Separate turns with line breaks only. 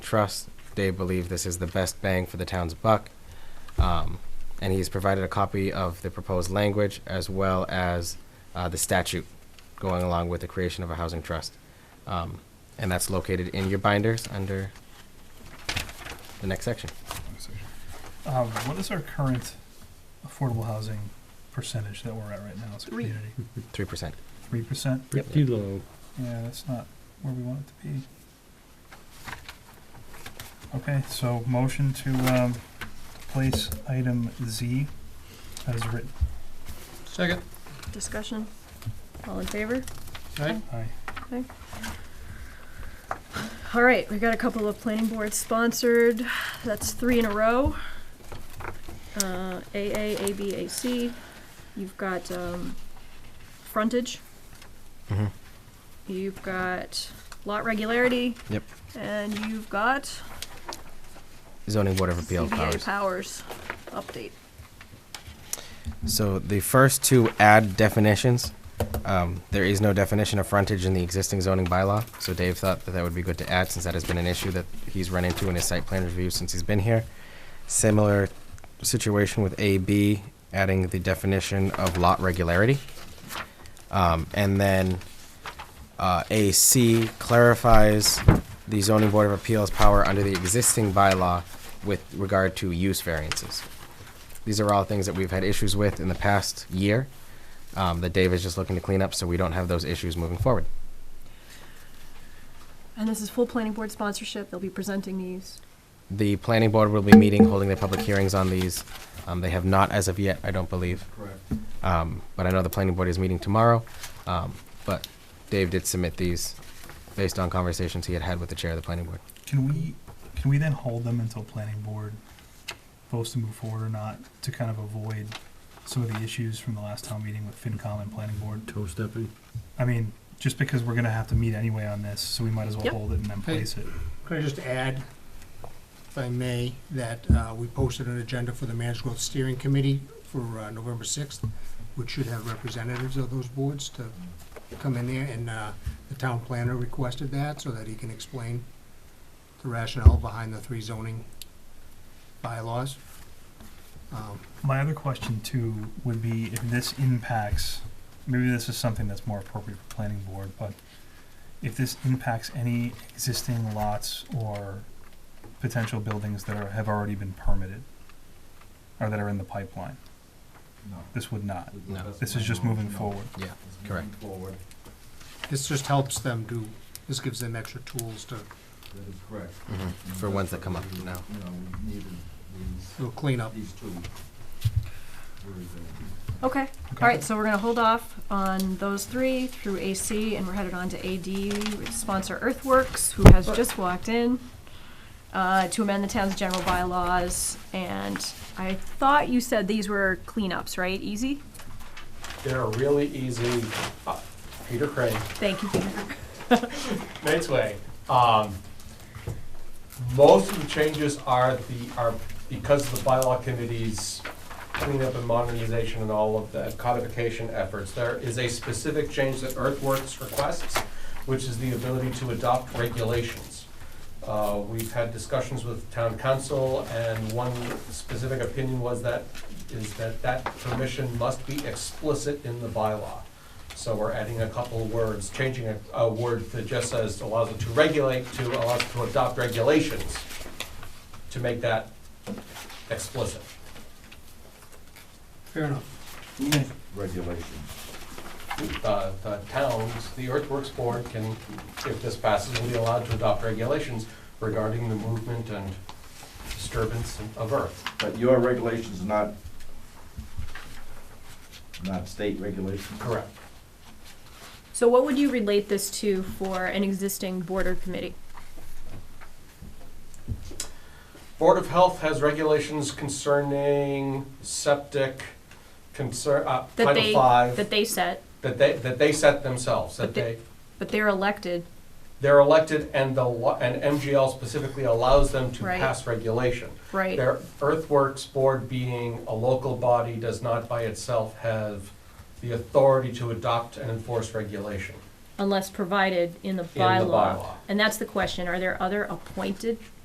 trust. They believe this is the best bang for the town's buck. Um, and he's provided a copy of the proposed language as well as uh, the statute going along with the creation of a housing trust. Um, and that's located in your binders under the next section.
Um, what is our current affordable housing percentage that we're at right now as a
Three.
community?
3%.
Three percent?
Pretty low.
Yeah, that's not where we want it to be. Okay, so motion to, um, place item Z as written.
Second.
Discussion? All in favor?
Aye.
Aye.
All right, we got a couple of planning board sponsored, that's three in a row. Uh, AA, AB, AC, you've got, um, frontage,
Mm-hmm.
you've got lot regularity.
Yep.
And you've got
Zoning Board of Appeal powers.
CBA powers update.
So the first two add definitions. Um, there is no definition of frontage in the existing zoning bylaw, so Dave thought that that would be good to add since that has been an issue that he's run into in his site plan review since he's been here. Similar situation with AB, adding the definition of lot regularity. Um, and then uh, AC clarifies the zoning board of appeals power under the existing bylaw with regard to use variances. These are all things that we've had issues with in the past year um, that Dave is just looking to clean up so we don't have those issues moving forward.
And this is full planning board sponsorship, they'll be presenting these.
The planning board will be meeting, holding their public hearings on these. Um, They have not as of yet, I don't believe.
Correct.
Um, But I know the planning board is meeting tomorrow. Um, But Dave did submit these based on conversations he had had with the chair of the planning board.
Can we, can we then hold them until planning board votes to move forward or not, to kind of avoid some of the issues from the last town meeting with FinCom and planning board?
Toe stepping.
I mean, just because we're gonna have to meet anyway on this, so we might as well
Yep.
hold it and then
Hey.
place it.
Could I just add, if I may, that uh, we posted an agenda for the Managed Growth Steering Committee for uh, November 6th, which should have representatives of those boards to come in there, and uh, the town planner requested that so that he can explain the rationale behind the three zoning bylaws. Um,
My other question too would be if this impacts, maybe this is something that's more appropriate for planning board, but if this impacts any existing lots or potential buildings that are, have already been permitted or that are in the pipeline, this would not.
No.
This is just moving forward.
Yeah, correct.
Forward,
This just helps them do, this gives them extra tools to
that is correct.
Mm-hmm. For ones that come up now.
You know, we needed these,
do a cleanup.
these two. Where is it?
Okay, all right, so we're gonna hold off on those three through AC, and we're headed on to AD, which sponsor Earthworks, who has just walked in, uh, to amend the town's general bylaws, and I thought you said these were cleanups, right, easy?
They're really easy. Uh, Peter Craig,
Thank you, Peter.
Nate's Way. Um, most of the changes are the, are because of the bylaw committee's cleanup and modernization and all of the codification efforts. There is a specific change that Earthworks requests, which is the ability to adopt regulations. Uh, We've had discussions with town council, and one specific opinion was that, is that that permission must be explicit in the bylaw. So we're adding a couple of words, changing a, a word that just says allows it to regulate, to allows it to adopt regulations, to make that explicit.
Fair enough.
Regulations.
The, the uh, towns, the earthworks board can, if this passes, will be allowed to adopt regulations regarding the movement and disturbance of earth.
But your regulations are not, not state regulations?
Correct.
So what would you relate this to for an existing board or committee?
Board of Health has regulations concerning septic, concern, uh,
That
Title
they-
Five,
That they set,
that they, that they set themselves, that
But they-
they,
but they're elected,
they're elected and the, lo- and MGL specifically allows them to
Right.
pass regulation.
right?
Their earthworks board being a local body does not by itself have the authority to adopt and enforce regulation
Unless provided in the
in the bylaw.
And that's the question, are there other appointed